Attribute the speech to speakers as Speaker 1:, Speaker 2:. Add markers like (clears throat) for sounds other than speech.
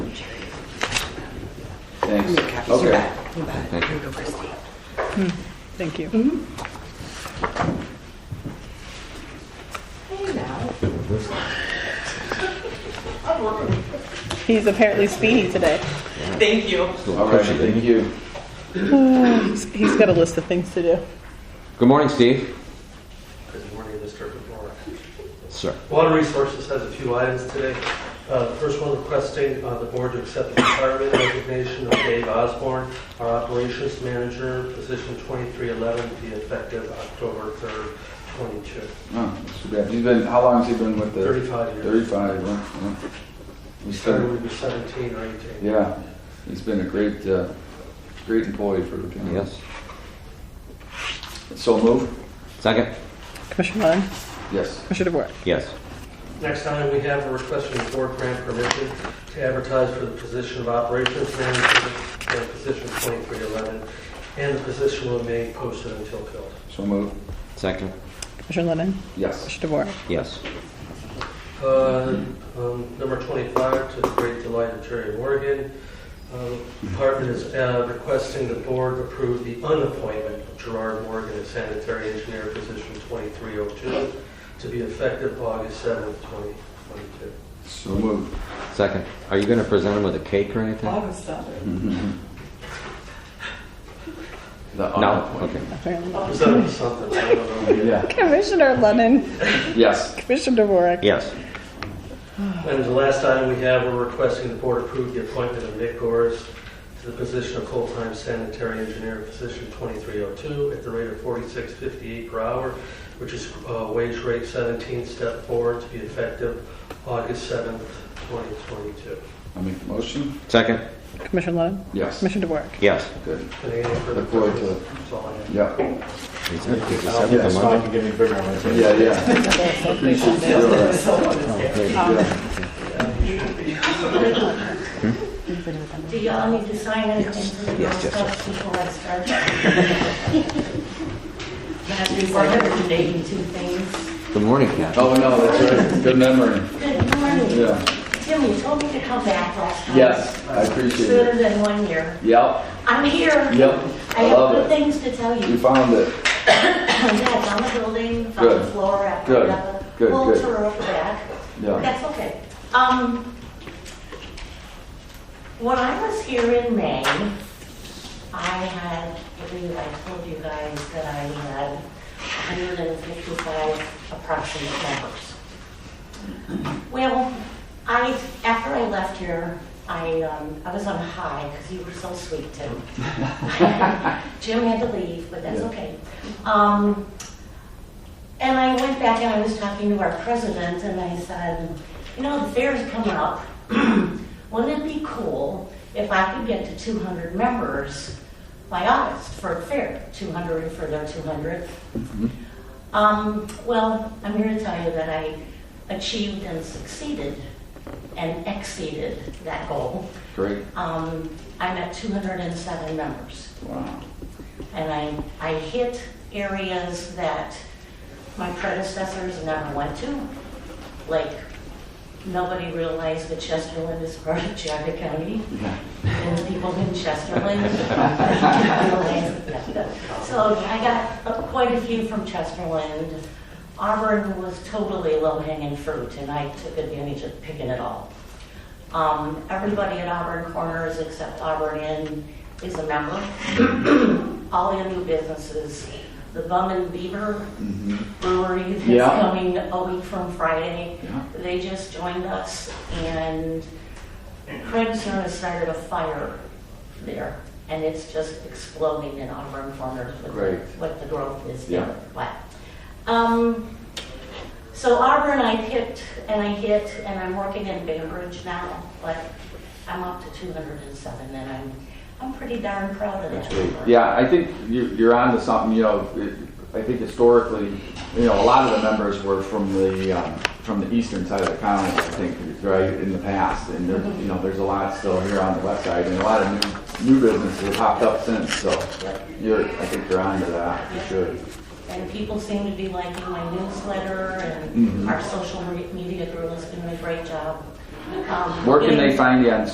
Speaker 1: Thanks.
Speaker 2: Make copies. You
Speaker 1: Okay.
Speaker 2: bet. You bet.
Speaker 3: Thank
Speaker 2: Here you go, Christine.
Speaker 4: Thank you.
Speaker 2: Hey, now.
Speaker 4: He's apparently speedy today.
Speaker 2: Thank you.
Speaker 3: Still
Speaker 1: All right,
Speaker 3: pushing it.
Speaker 1: thank you.
Speaker 4: He's he's got a list of things to do.
Speaker 3: Good morning, Steve.
Speaker 5: Good morning, Mr. Pecora.
Speaker 3: Sir.
Speaker 5: Water Resources has a few items today. Uh, The first one requesting uh, the board to accept the retirement resignation of Dave Osborne, our operations manager, position 2311, to be effective October 3rd, 22,
Speaker 1: Oh, that's too bad. He's been, how long has he been with the?
Speaker 5: 35 years.
Speaker 1: Thirty-five. huh? Huh. He
Speaker 5: Started when
Speaker 1: started,
Speaker 5: he was 17 or 18.
Speaker 1: yeah, he's been a great, uh, great employee for the county.
Speaker 3: Yes.
Speaker 1: So move?
Speaker 3: Second?
Speaker 4: Commissioner Lund,
Speaker 1: Yes.
Speaker 4: Commissioner DeWort.
Speaker 3: Yes.
Speaker 5: Next item, we have a request from the board grant permission to advertise for the position of operations manager and position 2311, and the position will remain posted until filled.
Speaker 1: So move?
Speaker 3: Second?
Speaker 4: Commissioner Lennon,
Speaker 1: Yes.
Speaker 4: Commissioner DeWort.
Speaker 3: Yes.
Speaker 5: Uh, um, Number 25, to the great delight of Jerry Morgan, um, department is uh, requesting the board approve the unappointment of Gerard Morgan as sanitary engineer, position 2302, to be effective August 7th, 2022.
Speaker 1: So move?
Speaker 3: Second. Are you going to present him with a cake or anything?
Speaker 1: The
Speaker 3: No?
Speaker 1: honorable.
Speaker 3: Okay.
Speaker 4: Apparently.
Speaker 5: Is that something? I don't know.
Speaker 1: Yeah,
Speaker 4: Commissioner Lennon,
Speaker 1: yes.
Speaker 4: Commissioner DeWort.
Speaker 3: Yes.
Speaker 5: And the last item we have, we're requesting the board approve the appointment of Nick Gores to the position of full-time sanitary engineer, position 2302, at the rate of 46.58 per hour, which is uh, wage rate 17, step 4, to be effective August 7th, 2022.
Speaker 1: I make the motion?
Speaker 3: Second?
Speaker 4: Commissioner Lennon,
Speaker 1: Yes.
Speaker 4: Commissioner DeWort.
Speaker 3: Yes.
Speaker 1: Good.
Speaker 5: Any further
Speaker 1: Look forward to it.
Speaker 5: questions? That's all I have.
Speaker 1: Yeah,
Speaker 3: Is that- is
Speaker 6: Yeah,
Speaker 3: that the
Speaker 6: so I
Speaker 3: money?
Speaker 6: can give you bigger ones.
Speaker 1: yeah, yeah. Appreciate you doing that. Yeah.
Speaker 7: Do y'all need to sign anything for the
Speaker 3: Yes, yes,
Speaker 7: stuff before I
Speaker 1: (laughs)
Speaker 7: start? I have to report every day and two things.
Speaker 3: Good morning, Kathy.
Speaker 1: Oh, no, that's right. Good memory.
Speaker 7: Good morning.
Speaker 1: Yeah.
Speaker 7: Tim, you told me to come back last time.
Speaker 1: Yes, I appreciate it.
Speaker 7: Sooner than one year.
Speaker 1: Yep,
Speaker 7: I'm here.
Speaker 1: yep.
Speaker 7: I
Speaker 1: I
Speaker 7: have good
Speaker 1: love it.
Speaker 7: things to tell
Speaker 1: You
Speaker 7: you.
Speaker 1: found it.
Speaker 7: (laughs) Yes, on the building, on the
Speaker 1: Good.
Speaker 7: floor, after
Speaker 1: Good.
Speaker 7: another.
Speaker 1: Good,
Speaker 7: We'll
Speaker 1: good.
Speaker 7: tour over back.
Speaker 1: Yeah.
Speaker 7: That's okay. Um, when I was here in May, I had, I believe I told you guys that I had 155 approximate members. Well, I, after I left here, I, um, I was on high because you were so sweet,
Speaker 1: (laughs)
Speaker 7: Tim. (laughs) Jim had to leave, but that's
Speaker 1: Yeah.
Speaker 7: okay. Um, and I went back and I was talking to our president and I said, you know, the fair's coming up. (clears throat) Wouldn't it be cool if I could get to 200 members by August for a fair, 200 for their 200th? Um, well, I'm here to tell you that I achieved and succeeded and exceeded that goal.
Speaker 1: Great.
Speaker 7: Um, I'm at 207 members
Speaker 1: Wow.
Speaker 7: and I, I hit areas that my predecessors never went to. Like, nobody realized that Chesterland is part of Jaga County,
Speaker 1: Yeah.
Speaker 7: and the people in Chesterland
Speaker 1: (laughs)
Speaker 7: realized that. So I got uh, quite a few from Chesterland. Auburn was totally low-hanging fruit, and I took advantage of picking it all. Um, Everybody at Auburn Corners except Auburn Inn is a
Speaker 1: (coughs)
Speaker 7: member. All the new businesses, the Bum and Beaver Brewery
Speaker 1: Mm-hmm. Yeah.
Speaker 7: that's coming a week from Friday.
Speaker 1: Yeah.
Speaker 7: They just joined us and Craig Serna started a fire there. And it's just exploding in Auburn Corners with
Speaker 1: Great.
Speaker 7: what the growth is
Speaker 1: Yeah.
Speaker 7: there. Wow. Um, so Auburn, I picked and I hit, and I'm working in Bainbridge now, but I'm up to 207, and I'm, I'm pretty darn proud of that. number.
Speaker 1: Yeah, I think you- you're on to something, you know, it- I think historically, you know, a lot of the members were from the, um, from the eastern side of the county, I think, right, in the past. And there, you know, there's a lot still here on the west side and a lot of new, new businesses have popped up since, so you're, I think you're on to that, you should.
Speaker 7: And people seem to be liking my newsletter, and
Speaker 1: Mhm.
Speaker 7: our social re- media group has been doing a great job. Um,
Speaker 1: Where can
Speaker 7: getting-
Speaker 1: they find you on